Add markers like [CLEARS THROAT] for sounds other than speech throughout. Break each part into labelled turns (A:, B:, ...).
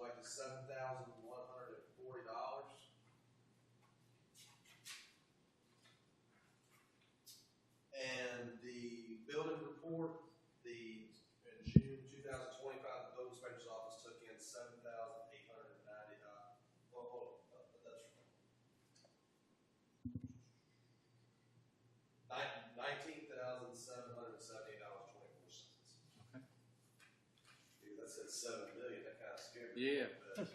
A: is seven thousand one hundred and forty dollars. And the building report, the, in June two thousand twenty-five, the building inspector's office took in seven thousand eight hundred and ninety, uh, well, hold on, uh, that's right. Nineteen thousand seven hundred and seventy dollars twenty-four cents.
B: Okay.
A: Dude, that said seven million, that kinda scared me.
B: Yeah. [LAUGHS]
A: But-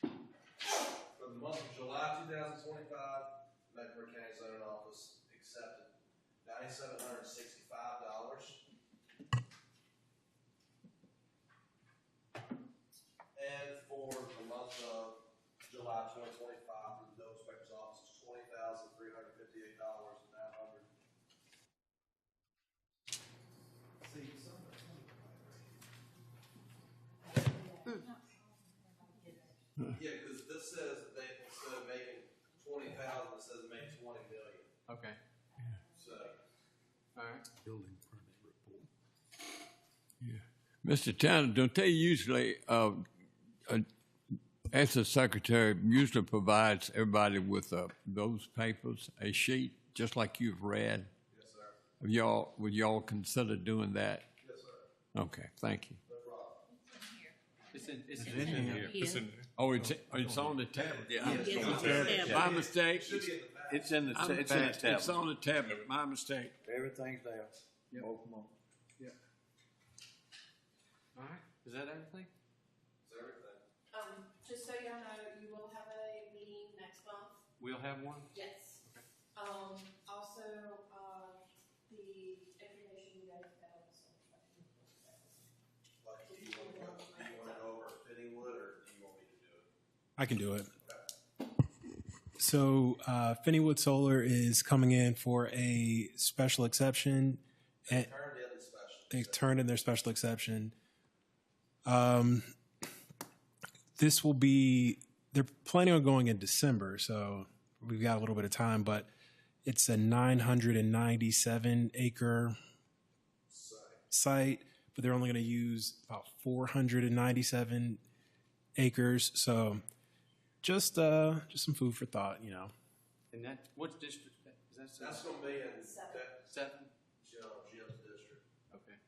A: For the month of July two thousand twenty-five, Mecklenburg County zoning office accepted ninety-seven hundred and sixty-five dollars. And for the month of July twenty twenty-five, for the building inspector's office, twenty thousand three hundred fifty-eight dollars and nine hundred. See, some of Yeah, because this says they, instead of making twenty thousand, it says make twenty million,
B: Okay.
A: so.
B: All right.
C: building permit report.
D: Mr. Tanner, don't they usually, uh, uh, as the secretary, usually provides everybody with uh, those papers, a sheet, just like you've read?
A: Yes, sir.
D: Have y'all, would y'all consider doing that?
A: Yes, sir.
D: Okay, thank you.
A: No problem.
B: It's in, it's in,
C: Then,
E: Yeah.
D: Oh, it's, it's on the tablet. Yeah.
E: Yes, it's
A: Yeah.
E: established.
D: My
A: It
D: mistake.
A: should be in the back.
F: It's in the,
D: I'm
F: it's in the
D: back. It's
F: tablet.
D: on the tablet, my mistake.
C: everything's there.
B: Yep.
C: Both of 'em.
B: all right. Is that everything?
A: It's everything.
E: Um, just so y'all know, you will have a meeting next month.
B: We'll have one.
E: Yes. Um, also, uh, the information you guys got was.
A: Like, do you want to go, do you want to go over Fittingwood, or do you want me to do it?
G: I can do it. So uh, Finneywood Solar is coming in for a special exception.
F: Eh.
G: And
A: Turn in the special.
G: they turned in their special exception. Um, this will be they're planning on going in December, so we've got a little bit of time. But it's a 997 acre
A: Site.
G: site, but they're only going to use about 497 acres. So just uh, just some food for thought, you know.
B: And that, what district? Is that seven?
A: That's gonna be in that,
B: seven?
A: Jim- Jim's district.
B: Okay.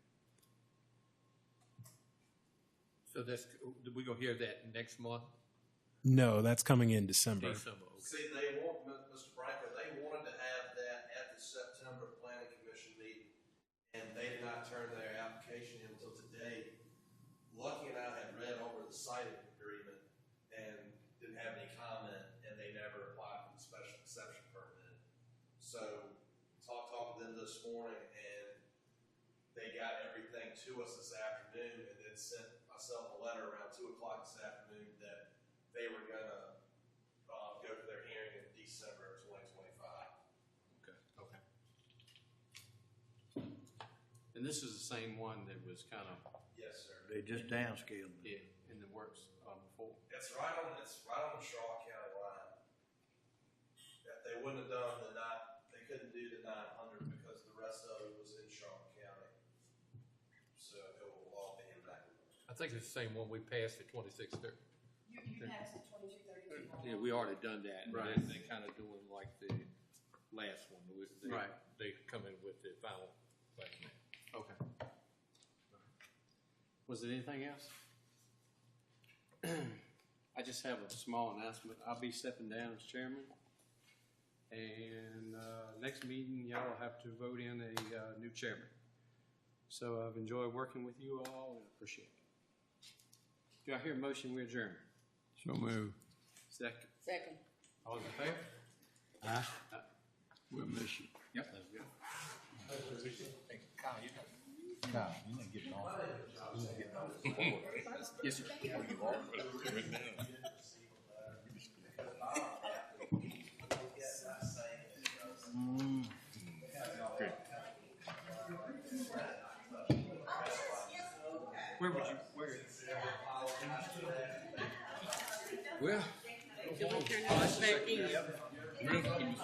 F: So that's, we gonna hear that next month?
G: No, that's coming in December.
F: December, okay.
A: See, they want, M- Mr. Branko, they wanted to have that at the September planning commission meeting, and they did not turn their application in until today. Lucky and I had read over the siting agreement and didn't have any comment, and they never applied for the special exception permit. So, talked, talked to them this morning, and they got everything to us this afternoon, and then sent myself a letter around two o'clock this afternoon that they were gonna uh, go to their hearing in December of twenty twenty-five.
B: Okay. And this is the same one that was kind of,
A: Yes, sir.
C: They just downscaled it.
B: yeah, in the works uh, before.
A: It's right on, it's right on the Shaw County line. If they wouldn't have done the nine, they couldn't do the nine hundred because the rest of it was in Shaw County. So it will all be impacted.
F: I think it's the same one we passed at twenty-six thirty.
E: You, you passed the twenty-two thirty-two.
F: Uh, Yeah, we already done that. and
B: Right.
F: then They kind of doing like the last one. we- they-
B: Right.
F: They come in with the final plan.
B: Okay. Was it anything else? [CLEARS THROAT] I just have a small announcement. I'll be stepping down as chairman. And uh, next meeting, y'all will have to vote in a uh, new chairman. So I've enjoyed working with you all and appreciate it. Do I hear a motion we adjourn?
D: So move.
B: Second.
E: Second.
B: All in favor?
D: We'll miss you.
B: Yep. That's good. Yes, sir. Where would you, where?
F: Well.
E: Can we turn this back in?